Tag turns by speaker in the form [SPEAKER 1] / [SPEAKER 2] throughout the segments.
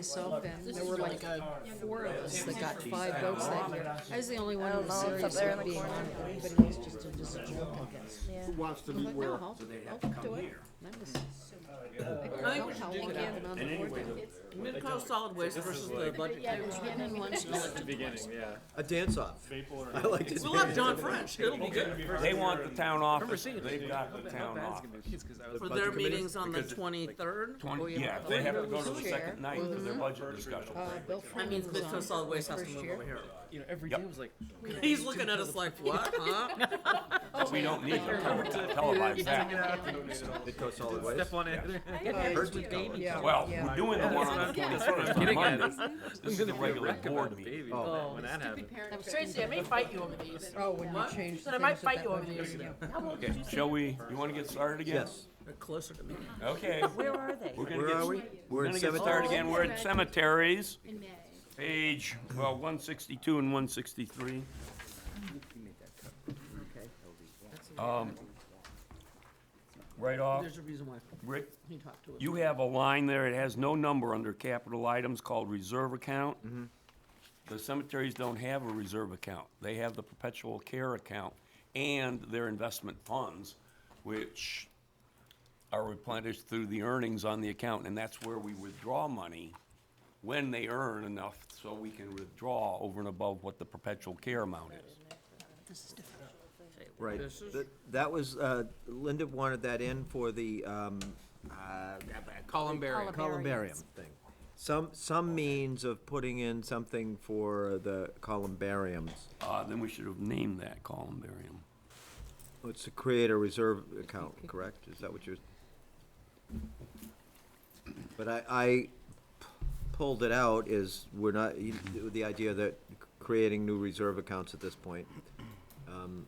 [SPEAKER 1] myself and there were like four of us that got five votes that year. I was the only one who was
[SPEAKER 2] Oh, no, it's up
[SPEAKER 1] serious
[SPEAKER 2] there in
[SPEAKER 1] about
[SPEAKER 2] the
[SPEAKER 1] being on
[SPEAKER 2] corner.
[SPEAKER 1] it, but he was just a, just a joke, I guess.
[SPEAKER 3] Who wants to
[SPEAKER 1] I'm
[SPEAKER 3] meet
[SPEAKER 1] like,
[SPEAKER 3] where?
[SPEAKER 1] no, I'll, I'll do it. And I was- I
[SPEAKER 4] think we
[SPEAKER 1] don't
[SPEAKER 4] should
[SPEAKER 1] help
[SPEAKER 4] do
[SPEAKER 1] it
[SPEAKER 4] that.
[SPEAKER 1] out and on the board.
[SPEAKER 4] Mid-Cal solid waste versus the budget.
[SPEAKER 1] And one
[SPEAKER 5] At the beginning, yeah.
[SPEAKER 3] A dance off. I like to.
[SPEAKER 4] We'll have John French, it'll be good,
[SPEAKER 6] They want the town office, they've got the town office.
[SPEAKER 4] for
[SPEAKER 3] budget
[SPEAKER 4] their
[SPEAKER 3] committee?
[SPEAKER 4] meetings on the twenty-third.
[SPEAKER 6] Twenty, yeah, if they have to go to the second night for their budget discussion.
[SPEAKER 1] Uh,
[SPEAKER 3] Oh,
[SPEAKER 1] Bill
[SPEAKER 4] That
[SPEAKER 1] Freeman
[SPEAKER 4] means
[SPEAKER 1] was
[SPEAKER 4] Mid-Cal
[SPEAKER 1] on
[SPEAKER 4] solid waste has to
[SPEAKER 1] first
[SPEAKER 4] move
[SPEAKER 1] year.
[SPEAKER 4] over here.
[SPEAKER 5] You know, every
[SPEAKER 6] Yep.
[SPEAKER 5] day was like,
[SPEAKER 4] He's looking at us like, what, huh?
[SPEAKER 6] We don't need to tele- televise that.
[SPEAKER 3] It goes solid ways.
[SPEAKER 5] step on it.
[SPEAKER 3] Heard we-
[SPEAKER 1] Yeah,
[SPEAKER 6] Well,
[SPEAKER 1] yeah.
[SPEAKER 6] we're doing the one on the twenty-first on
[SPEAKER 5] Getting at
[SPEAKER 6] Monday.
[SPEAKER 5] us.
[SPEAKER 6] This is the regular board meeting.
[SPEAKER 5] Baby,
[SPEAKER 3] Oh.
[SPEAKER 5] when that happened.
[SPEAKER 7] Tracy, I may fight you over these.
[SPEAKER 1] Oh, when you
[SPEAKER 4] What?
[SPEAKER 1] changed the
[SPEAKER 7] But I
[SPEAKER 1] things
[SPEAKER 7] might
[SPEAKER 1] at
[SPEAKER 7] fight
[SPEAKER 1] that
[SPEAKER 7] you over
[SPEAKER 1] one.
[SPEAKER 7] these.
[SPEAKER 6] Okay, shall we, you wanna get started again?
[SPEAKER 3] Yes.
[SPEAKER 4] They're Closer to me.
[SPEAKER 6] Okay.
[SPEAKER 2] Where are they?
[SPEAKER 6] We're gonna
[SPEAKER 3] Where are
[SPEAKER 6] get,
[SPEAKER 3] we? We're
[SPEAKER 6] we're
[SPEAKER 3] in
[SPEAKER 6] gonna get
[SPEAKER 3] cemetery.
[SPEAKER 6] started again, we're at cemeteries,
[SPEAKER 8] in May.
[SPEAKER 6] page, well, one sixty-two and one sixty-three. Um, right off,
[SPEAKER 4] There's a reason why
[SPEAKER 6] Rick,
[SPEAKER 4] he talked to us.
[SPEAKER 6] You have a line there, it has no number under capital items called reserve account. The cemeteries don't have a reserve account. They have the perpetual care account and their investment funds, which are replenished through the earnings on the account, and that's where we withdraw money when they earn enough so we can withdraw over and above what the perpetual care amount is.
[SPEAKER 3] Right.
[SPEAKER 4] This is-
[SPEAKER 3] That- That was, uh, Linda wanted that in for the, um, uh,
[SPEAKER 4] Columbarium.
[SPEAKER 3] columbarium thing. Some, some means of putting in something for the columbariums,
[SPEAKER 6] Uh, then we should have named that columbarium.
[SPEAKER 3] Oh, It's to create a reserve account, correct? Is that what you're? But I, I p- pulled it out is, we're not, you- the idea that creating new reserve accounts at this point. um,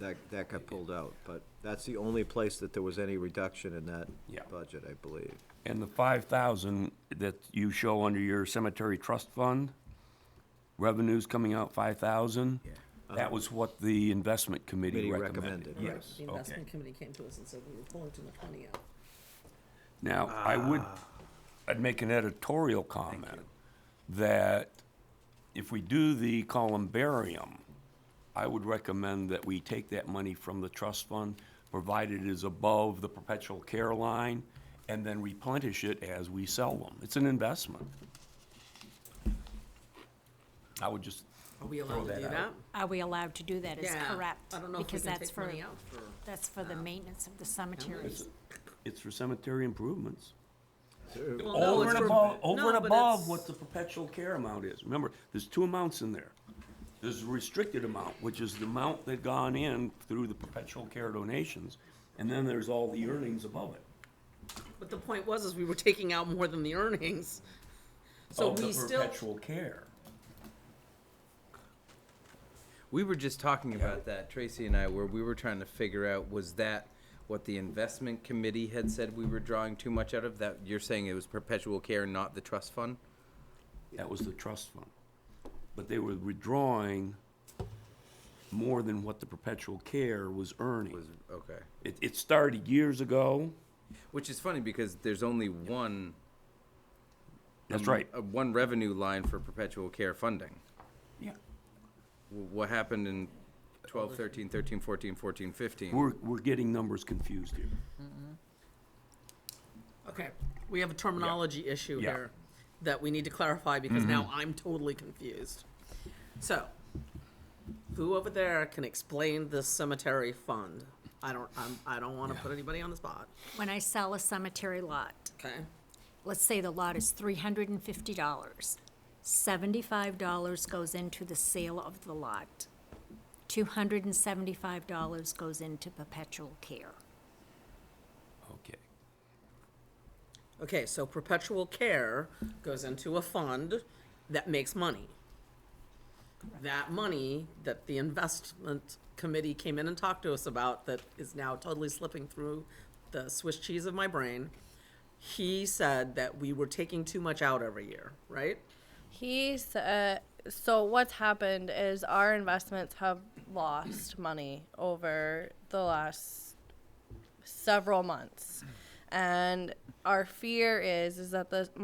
[SPEAKER 3] That, that got pulled out, but that's the only place that there was any reduction in that
[SPEAKER 6] Yeah.
[SPEAKER 3] budget, I believe.
[SPEAKER 6] And the five thousand that you show under your cemetery trust fund, revenues coming out five thousand? That was what the investment committee
[SPEAKER 3] Committee
[SPEAKER 6] recommended.
[SPEAKER 3] recommended,
[SPEAKER 6] Yes,
[SPEAKER 4] The
[SPEAKER 6] okay.
[SPEAKER 4] investment committee came to us and said we were pulling too much money out.
[SPEAKER 6] Now, I would, I'd make an editorial comment that if we do the columbarium, I would recommend that we take that money from the trust fund, provided it is above the perpetual care line, and then replenish it as we sell them. It's an investment. I would just
[SPEAKER 4] Are we
[SPEAKER 6] throw
[SPEAKER 4] allowed to do
[SPEAKER 6] that
[SPEAKER 4] that?
[SPEAKER 6] out.
[SPEAKER 9] Are we allowed to do that is
[SPEAKER 4] Yeah,
[SPEAKER 9] correct.
[SPEAKER 4] I don't know if we
[SPEAKER 9] because
[SPEAKER 4] can
[SPEAKER 9] that's
[SPEAKER 4] take
[SPEAKER 9] for-
[SPEAKER 4] money out for-
[SPEAKER 9] That's for the maintenance of the cemeteries.
[SPEAKER 6] It's for cemetery improvements.
[SPEAKER 4] Well, no,
[SPEAKER 6] Over
[SPEAKER 4] it's
[SPEAKER 6] and
[SPEAKER 4] for-
[SPEAKER 6] above, over
[SPEAKER 4] no,
[SPEAKER 6] and
[SPEAKER 4] but
[SPEAKER 6] above
[SPEAKER 4] it's-
[SPEAKER 6] what the perpetual care amount is. Remember, there's two amounts in there. There's the restricted amount, which is the amount that gone in through the perpetual care donations, and then there's all the earnings above it.
[SPEAKER 4] But the point was, is we were taking out more than the earnings. So
[SPEAKER 6] Of
[SPEAKER 4] we
[SPEAKER 6] The
[SPEAKER 4] still,
[SPEAKER 6] perpetual care.
[SPEAKER 10] We were just talking about that, Tracy and I, where we were trying to figure out was that what the investment committee had said we were drawing too much out of? That you're saying it was perpetual care, not the trust fund?
[SPEAKER 6] That was the trust fund. But they were withdrawing more than what the perpetual care was earning.
[SPEAKER 10] Was okay.
[SPEAKER 6] It, it started years ago.
[SPEAKER 10] Which is funny because there's only one
[SPEAKER 6] That's right.
[SPEAKER 10] uh, one revenue line for perpetual care funding.
[SPEAKER 6] Yeah.
[SPEAKER 10] W- What happened in 12, 13, 13, 14, 14, 15?
[SPEAKER 6] We're, we're getting numbers confused here.
[SPEAKER 4] okay, we have a terminology issue
[SPEAKER 6] Yeah. Mm-hmm.
[SPEAKER 4] here that we need to clarify because now I'm totally confused. So, who over there can explain this cemetery fund? I don't, I'm, I don't wanna put anybody on the spot,
[SPEAKER 9] When I sell a cemetery lot,
[SPEAKER 4] okay?
[SPEAKER 9] let's say the lot is three hundred and fifty dollars. Seventy-five dollars goes into the sale of the lot. Two hundred and seventy-five dollars goes into perpetual care.
[SPEAKER 6] Okay.
[SPEAKER 4] Okay, so perpetual care goes into a fund that makes money. That money that the investment committee came in and talked to us about that is now totally slipping through the Swiss cheese of my brain. He said that we were taking too much out every year, right?
[SPEAKER 7] He's, uh, so what's happened is our investments have lost money over the last several months. And our fear is, is that the